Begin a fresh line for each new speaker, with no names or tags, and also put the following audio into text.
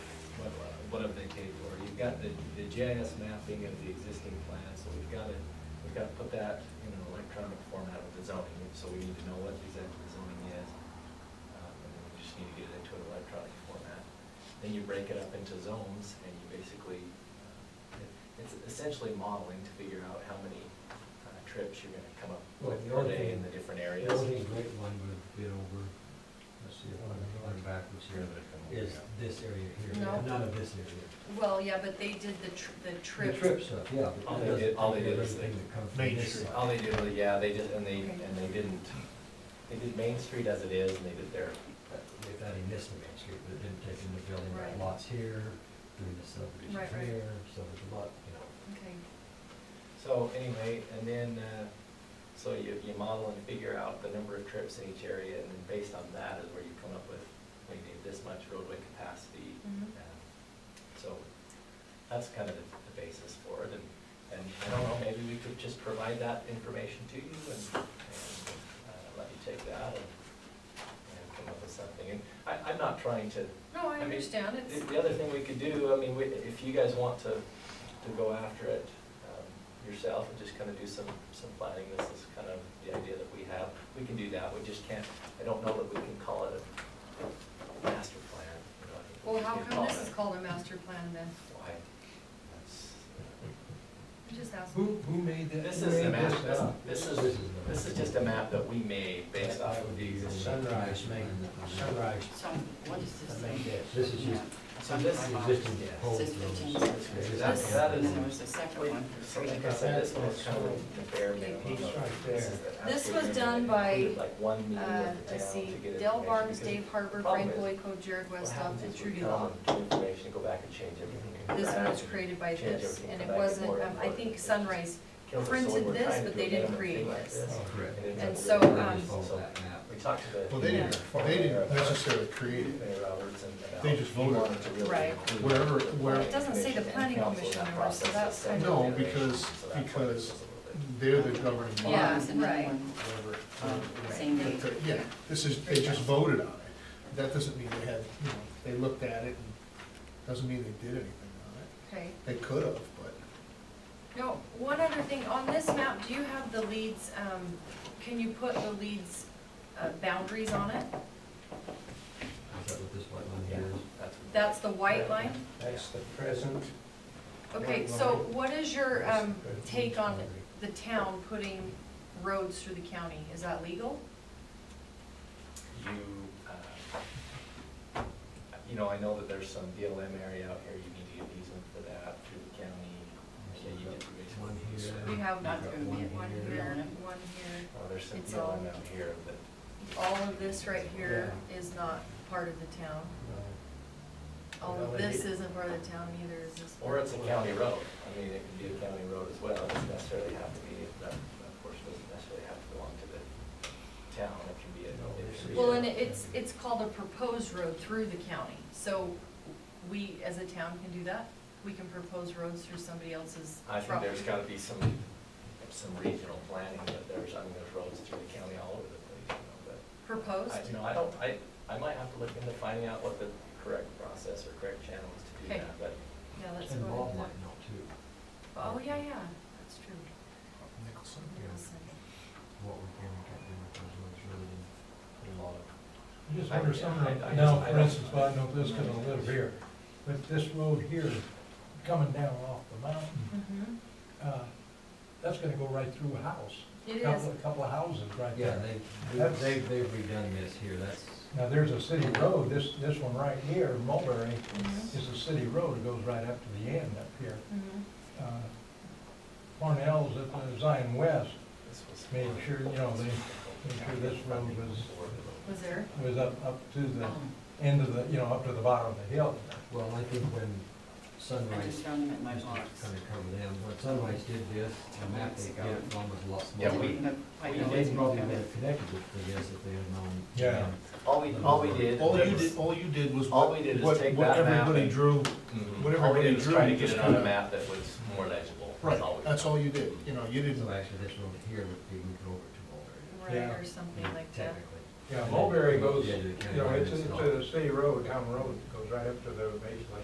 what I'm thinking, or you've got the, the GIS mapping of the existing plan, so we've got to, we've got to put that in an electronic format of the zoning, so we need to know what exactly the zoning is. Um, And then we just need to get it into an electronic format. Then you break it up into zones, and you basically, uh, it- it's essentially modeling to figure out how many uh, trips you're gonna come up
Well,
with
the
per
only
day in
thing-
the different areas.
The only great one would be over, let's see, if I'm
Going
going
backwards here, but it can.
is this area here,
No.
none of this area.
Well, yeah, but they did the, tr- the
The
trip.
trip stuff, yeah. but
All
that
they
doesn't
did- all they
cover
did is they-
everything that comes from
Main
this
Street.
side.
All they did was, yeah, they just, and they,
Okay.
and they didn't, they did Main Street as it is, and they did their,
If that he missed the Main Street, but it didn't take into building
Right.
right lots here, doing the subdivision
Right, right.
here, so there's a lot, you know.
Okay,
so anyway, and then, uh, so you, you model and figure out the number of trips in each area, and then based on that is where you come up with, we need this much roadway capacity.
Mhm.
uh, So that's kind of the the basis for it, and, and I don't know, maybe we could just provide that information to you and, and, uh, let you take that and, and come up with something. And I, I'm not trying to
no,
I mean,
I understand, it's,
The- The other thing we could do, I mean, we- if you guys want to, to go after it um, yourself and just kind of do some, some planning, this is kind of the idea that we have. We can do that, we just can't, I don't know that we can call it a master plan, you know. I think we
well, how
can
come
call
this is
it-
called a master plan then?
Why, that's,
I'm just asking.
Who, who made that?
this
who
is the
made
map,
this
this,
up?
this
This
is,
is the-
this is just a map that we made based
That-
off
that
of
would
the
be the
existing.
sunrise main, sunrise,
So what is this
I
thing?
mean, this, this is just
So this,
the existing
Yeah.
whole
Says fifteen
road.
cents.
This is-
That- that
And
is-
then there was the second one.
so like I said, this one's kind of the bare minimum.
He's right
This is
there.
the
This
absolute
was
minimum.
done by,
Included, like, one meeting of
Uh,
the
let's
town
see,
to get
Dale
information, because
Barnes, Dave Harper,
problem
Frank
is,
Boyko, Jared
what
Westoff,
happens
and
is we
Trudy
come
Law.
and do information, go back and change everything.
This one was
Back,
created by
change
this,
everything, come
and it
back and
wasn't,
forth,
um, I
forth.
think Sunrise
Kills us, so
printed
we're
this,
trying to
but
do
they
a
didn't
minimum thing
create
like
this.
this.
Oh, correct.
And it
And
ends
so,
up with
They
um,
just follow
So,
that map.
We talked to the.
Well, they didn't, they didn't necessarily create it.
Mayor Roberts and about-
They just voted.
we wanted to really
Right.
include
Wherever-
the
where-
planning
It doesn't say the
commission and
planning
council
commission
in that
number, so
process,
that's
so
kind
that's
of-
why
No, because-
it's a
because
little bit.
They're the governing body.
Yeah,
There's another
right.
one,
whatever. um,
uh, Same date.
But, Yeah, this is, they just voted on it. That doesn't mean they had, you know, they looked at it and doesn't mean they did anything on it.
Okay,
They could have, but
no, one other thing, on this map, do you have the leads, um, can you put the leads, uh, boundaries on it?
Is that what this white line
Yeah,
here is?
that's.
That's the white line?
That's
the present.
Okay,
Right,
so
right.
what is your um,
Right.
take on the town putting roads through the county? Is that legal?
you, uh, you know, I know that there's some BLM area out here, you need to get easement for that through the county. Yeah, you get the basement.
One here.
We have
Not
You've got
through
one
me,
one
here.
here, one here.
Oh, there's some
It's all-
BLM out here, but
All of this right here is not part of the town. All of this isn't part of the town either, is this?
or it's a county road. I mean, it could be a county road as well, it doesn't necessarily have to be, that, that portion doesn't necessarily have to belong to the town, it can be a.
Well, and it's, it's called a proposed road through the county. So we, as a town, can do that? We can propose roads through somebody else's
I
property?
think there's gotta be some, some regional planning, but there's, I mean, there's roads through the county all over the place, you know, but.
Proposed?
I- You know, I don't, I, I might have to look into finding out what the correct process or correct channel is to do
Okay.
that, but
Yeah, let's
And
go
Bob
ahead
might
and-
know too,
Oh, yeah, yeah, that's true.
Nicholson.
Nicholson.
what we can and can't do with those roads, really, and a lot of.
I just
I-
wonder
I-
something,
I
now,
just-
for instance, well, I know this because I live here, but this road here, coming down off the mountain,
Mhm.
uh, that's gonna go right through a house.
It is.
Couple- Couple of houses right
Yeah,
there.
they,
That's-
they've, they've redone this here, that's,
Now, there's a city road, this, this one right here, Mulberry,
Mhm.
is a city road, It goes right up to the end up here.
Mhm.
Uh, Parnell's at the Zion West,
this was.
made sure, you know, they made sure this road was,
Was there?
was up, up to the
Um,
end of the, you know, up to the bottom of the hill.
well, I think when
I
Sunrise,
just found them in my
kind of
box.
covered them, when Sunrise did this, the map they got one was a lot
Yeah,
smaller.
we-
Didn't look like
we-
I
And They
didn't
probably
have
would
it.
have connected it to this if they had known.
Yeah.
All we, all we did.
All you
was-
did, all you did was
All
what,
we did is
what
take
what
that map
everybody
and-
drew.
Mhm.
whatever
All we
they
did was
drew,
try to
you
get it
just
on a
kinda-
map that was more legible.
Right,
all we
that's
did.
all you did. You know, you didn't,
So actually, this road here would be moved over to Mulberry.
Right,
Yeah.
or something like that.
Technically.
Yeah,
And then
Mulberry goes,
the edge of the
you
county
know,
line
it's,
is
it's
not.
a city road, town road, goes right up to the baseline.